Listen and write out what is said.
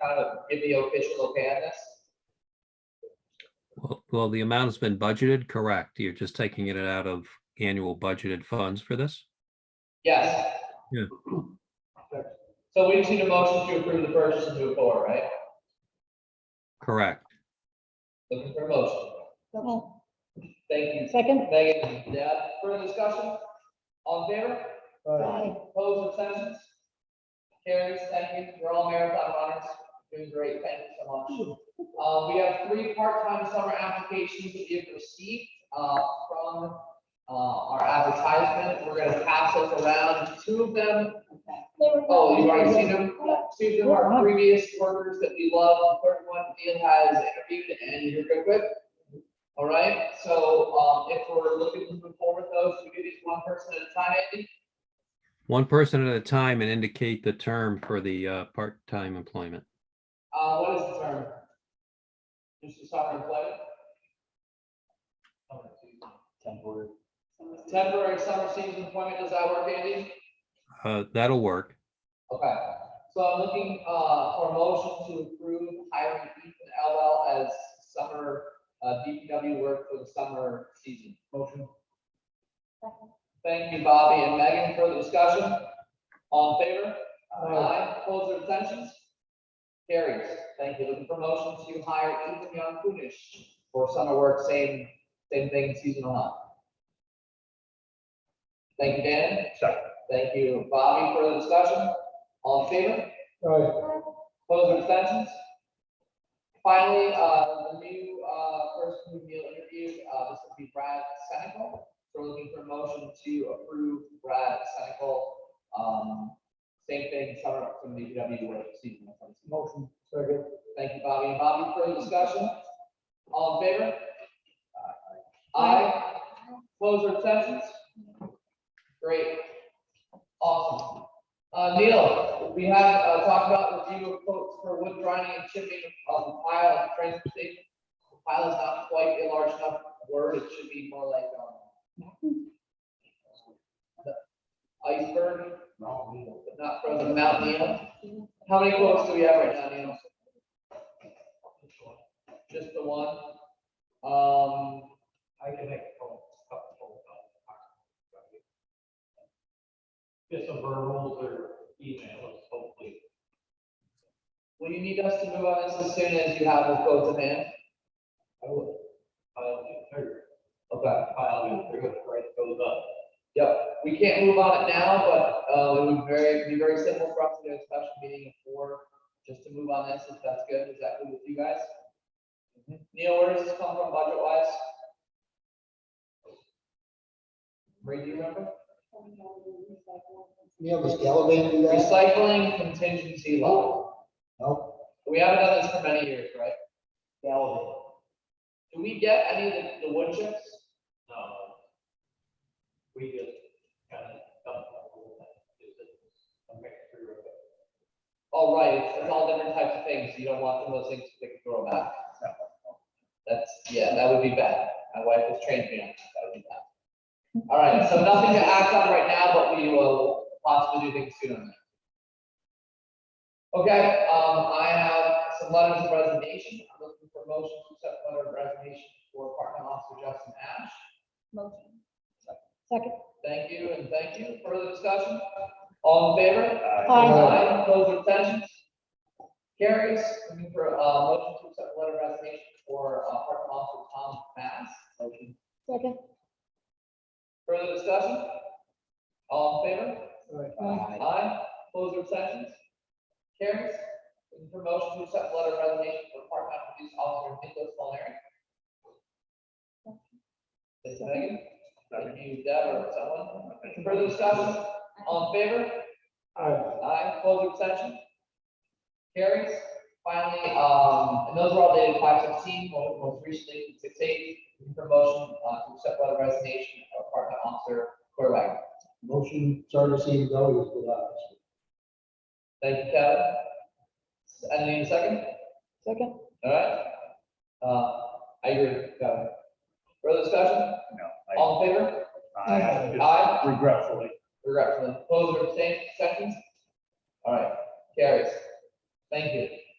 kind of give uh, the official okay on this? Well- Well, the amount has been budgeted, correct? You're just taking it out of annual budgeted funds for this? Yes. Yeah. So we just need a motion to approve the purchase and move forward, right? Correct. Looking for a motion. So moved. Thank you. Second? Megan, yeah, further discussion? All in favor? Aye. Opposed, abstentions? Carries, thank you. We're all marathon runners. Doing great. Thank you so much. Uh, we have three part-time summer applications that we have received, uh, from, uh, our advertisement. We're gonna pass those around. Two of them Oh, you've already seen them? Two of them are previous workers that we love, the third one Neil has interviewed and you're good with. All right, so, um, if we're looking to move forward with those, we do these one person at a time, Andy? One person at a time and indicate the term for the uh, part-time employment. Uh, what is the term? Just a summer employment? Temporary. Temporary summer season employment, does that work, Andy? Uh, That'll work. Okay, so I'm looking, uh, for a motion to approve hiring Ethan Elwell as summer, uh, DPW work for the summer season. Motion. Thank you, Bobby and Megan, for the discussion. All in favor? Aye. Opposed or abstentions? Carries. Thank you. Looking for motion to hire Ethan Young Kunish for summer work, same, same thing, seasonal hunt. Thank you, Dan. Thank you, Bobby, for the discussion. All in favor? Opposed or abstentions? Finally, uh, the new, uh, person who Neil interviewed, uh, this will be Brad Senecal. So We're looking for a motion to approve Brad Senecal, um, same thing, summer from the DPW work season. Motion, second. Thank you, Bobby. And Bobby, further discussion? All in favor? Aye. Opposed or abstentions? Great. Awesome. Uh, Neil, we have, uh, talked about review of quotes for wood grinding and chipping of the pile at the transfer station. Pile is not quite a large enough word, it should be more like, um. the Iceberg, but not frozen mountain, Neil. How many quotes do we have right now, Neil? Just the one? Um. I can make a couple, Get some verbals or emails, hopefully. Will you need us to move on this as soon as you have the quotes in hand? I will, I'll get through, Okay. I'll get through it, right, goes up. Yep, we can't move on it now, but, uh, it would very, be very simple for us to do a special meeting of four, just to move on this, if that's good, is that good with you guys? Neil, where does this come from budget wise? Ray, do you remember? Neil, does Gallivan do that? Recycling contingency law, No, we haven't done this for many years, right? Gallivan. Do we get any of the, the wood chips? No. We just kind of dumped a little bit, just a mixture of it. Oh, right, it's, it's all different types of things, you don't want those things to pick throw back. That's, yeah, that would be bad. My wife has trained me on that, that would be bad. All right, so nothing to act on right now, but we will possibly do things sooner. than that. Okay, um, I have some letters of resignation. I'm looking for motion to accept letter of resignation for apartment officer Justin Ash. Motion. Second? Thank you and thank you. Further discussion? All in favor? Aye. Opposed or abstentions? Carries, looking for a motion to accept letter of resignation for uh, apartment officer Tom Mass. Motion. Second? Further discussion? All in favor? Aye. Aye. Opposed or abstentions? Carries, looking for motion to accept letter of resignation for part-time police officer Nicholas Mulnery. Thank you, Megan. Thank you, Deb, or someone. Further discussion? All in favor? Aye, opposed, or abstention? Carries. Finally, um, and those are all dated five sixteen, most, most recently six eight, promotion, uh, to accept letter of resignation of part-time officer Corey Wagner. Motion, sorry to see you go, he was good officer. Thank you, Kevin. And need a second? Second? All right? Uh, I agree, Kevin. Further discussion? No. All in favor? Aye. I, regretfully. Regretfully, opposed or abstained, seconds? All right, carries. Thank you.